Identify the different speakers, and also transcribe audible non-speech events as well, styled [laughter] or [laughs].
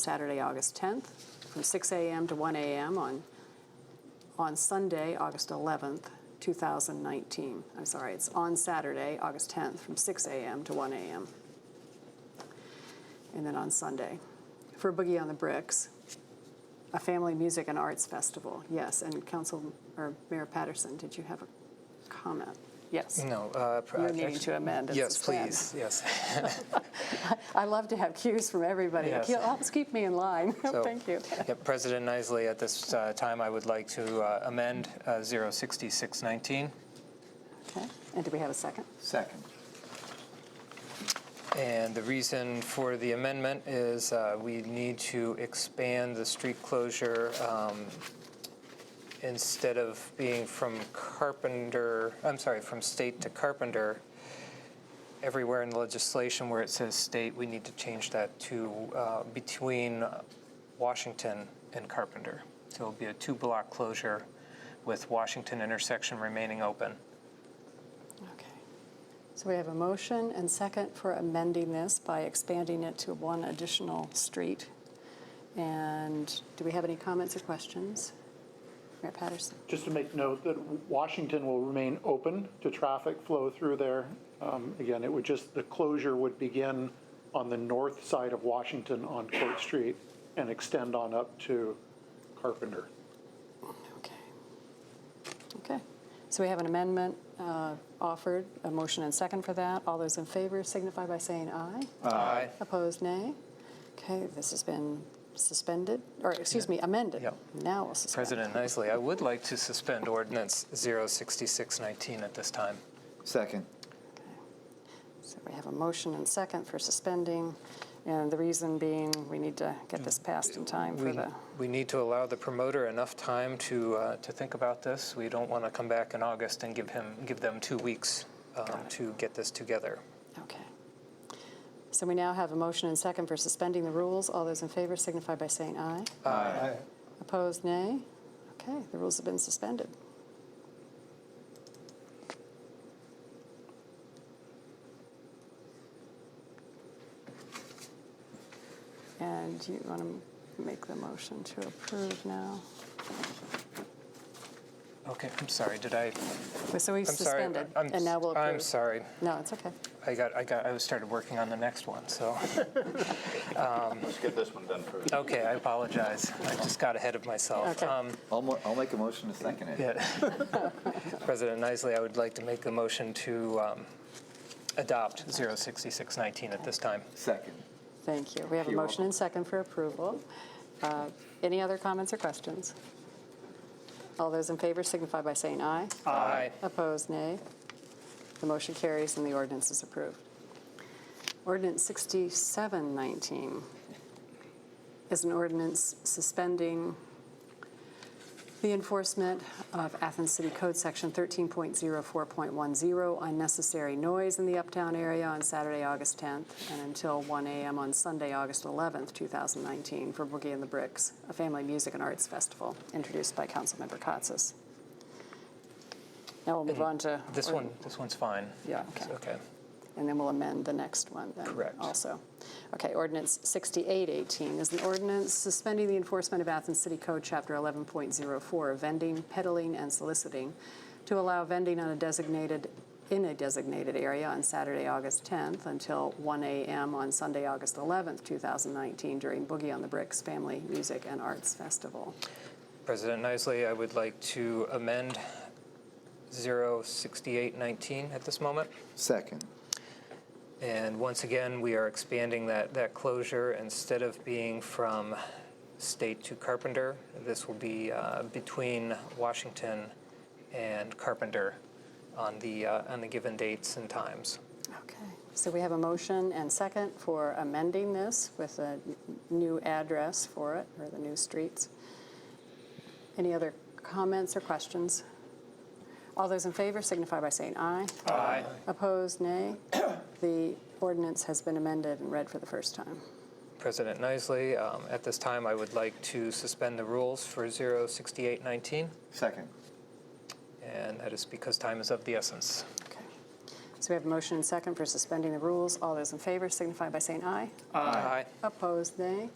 Speaker 1: Saturday, August 10th, from 6 a.m. to 1 a.m. on, on Sunday, August 11th, 2019. I'm sorry, it's on Saturday, August 10th, from 6 a.m. to 1 a.m. And then on Sunday, for Boogie on the Bricks, a family music and arts festival. Yes, and Council, or Mayor Patterson, did you have a comment? Yes.
Speaker 2: No. Uh, pr-
Speaker 1: You're
Speaker 2: uh,
Speaker 1: needing
Speaker 2: act-
Speaker 1: to amend and
Speaker 2: Yes,
Speaker 1: suspend.
Speaker 2: please. Yes.
Speaker 1: [laughs] I love to have cues from everybody. It
Speaker 2: Yes.
Speaker 1: helps keep me in line. [laughs]
Speaker 2: So-
Speaker 1: Thank you.
Speaker 2: Yep, President Isley, at this uh, time, I would like to uh, amend uh, 06619.
Speaker 1: Okay, and do we have a second?
Speaker 3: Second.
Speaker 2: And the reason for the amendment is uh, we need to expand the street closure um, instead of being from Carpenter, I'm sorry, from state to Carpenter. Everywhere in the legislation where it says state, we need to change that to uh, between Washington and Carpenter. So it'll be a two-block closure with Washington intersection remaining open.
Speaker 1: Okay. So we have a motion and second for amending this by expanding it to one additional street. And do we have any comments or questions? Mayor Patterson?
Speaker 4: Just to make note that Washington will remain open to traffic flow through there. Um, Again, it would just, the closure would begin on the north side of Washington on Court Street and extend on up to Carpenter.
Speaker 1: Okay. Okay. So we have an amendment uh, offered, a motion and second for that. All those in favor signify by saying aye.
Speaker 2: Aye.
Speaker 1: Opposed, nay. Okay, this has been suspended, or excuse me, amended.
Speaker 2: Yeah.
Speaker 1: Now we'll suspend.
Speaker 2: President Isley, I would like to suspend Ordinance 06619 at this time.
Speaker 3: Second.
Speaker 1: So we have a motion and second for suspending, and the reason being, we need to get this passed in time for
Speaker 2: We,
Speaker 1: the,
Speaker 2: we need to allow the promoter enough time to, uh, to think about this. We don't want to come back in August and give him, give them two weeks um, to get this together.
Speaker 1: okay. So we now have a motion and second for suspending the rules. All those in favor signify by saying aye.
Speaker 3: Aye.
Speaker 1: Opposed, nay. Okay, the rules have been suspended. And you want to make the motion to approve now?
Speaker 2: Okay, I'm sorry, did I,
Speaker 1: So we've
Speaker 2: I'm sorry.
Speaker 1: suspended,
Speaker 2: I'm
Speaker 1: and now we'll
Speaker 2: s-
Speaker 1: approve.
Speaker 2: I'm sorry.
Speaker 1: No, it's okay.
Speaker 2: I got, I got, I was started working on the next one,
Speaker 5: [laughs]
Speaker 2: so, Um,
Speaker 5: Let's get this one done first.
Speaker 2: okay, I apologize. I just got ahead of myself.
Speaker 1: Okay.
Speaker 2: Um,
Speaker 3: I'll, mo- I'll make a motion to second it.
Speaker 2: Yeah. President Isley, I would like to make a motion to um, adopt 06619 at this time.
Speaker 3: Second.
Speaker 1: Thank you. We have a
Speaker 3: You're
Speaker 1: motion and second for approval. Uh, Any other comments or questions? All those in favor signify by saying aye.
Speaker 2: Aye.
Speaker 1: Opposed, nay. The motion carries and the ordinance is approved. Ordinance 6719 is an ordinance suspending the enforcement of Athens City Code Section 13.04.10, unnecessary noise in the uptown area on Saturday, August 10th, and until 1 a.m. on Sunday, August 11th, 2019, for Boogie and the Bricks, a family music and arts festival, introduced by Councilmember Katsas. Now we'll move on to.
Speaker 2: This one, this one's fine.
Speaker 1: Yeah,
Speaker 2: It's
Speaker 1: okay.
Speaker 2: Okay.
Speaker 1: And then we'll amend the next one then
Speaker 2: Correct.
Speaker 1: also. Okay, ordinance 6818 is an ordinance suspending the enforcement of Athens City Code, Chapter 11.04, of vending, peddling, and soliciting to allow vending on a designated, in a designated area on Saturday, August 10th until 1 a.m. on Sunday, August 11th, 2019 during Boogie on the Bricks Family Music and Arts Festival.
Speaker 2: President Isley, I would like to amend 06819 at this moment.
Speaker 3: Second.
Speaker 2: And once again, we are expanding that, that closure. Instead of being from State to Carpenter, this will be uh, between Washington and Carpenter on the, uh, on the given dates and times.
Speaker 1: Okay, so we have a motion and second for amending this with a n- new address for it, or the new streets. Any other comments or questions? All those in favor signify by saying aye.
Speaker 2: Aye.
Speaker 1: Opposed, nay. The ordinance has been amended and read for the first time.
Speaker 2: President Nisley, um, at this time, I would like to suspend the rules for 06819,
Speaker 3: Second.
Speaker 2: and that is because time is of the essence.
Speaker 1: Okay. So we have a motion and second for suspending the rules. All those in favor signify by saying aye.
Speaker 2: Aye.
Speaker 1: Opposed, nay.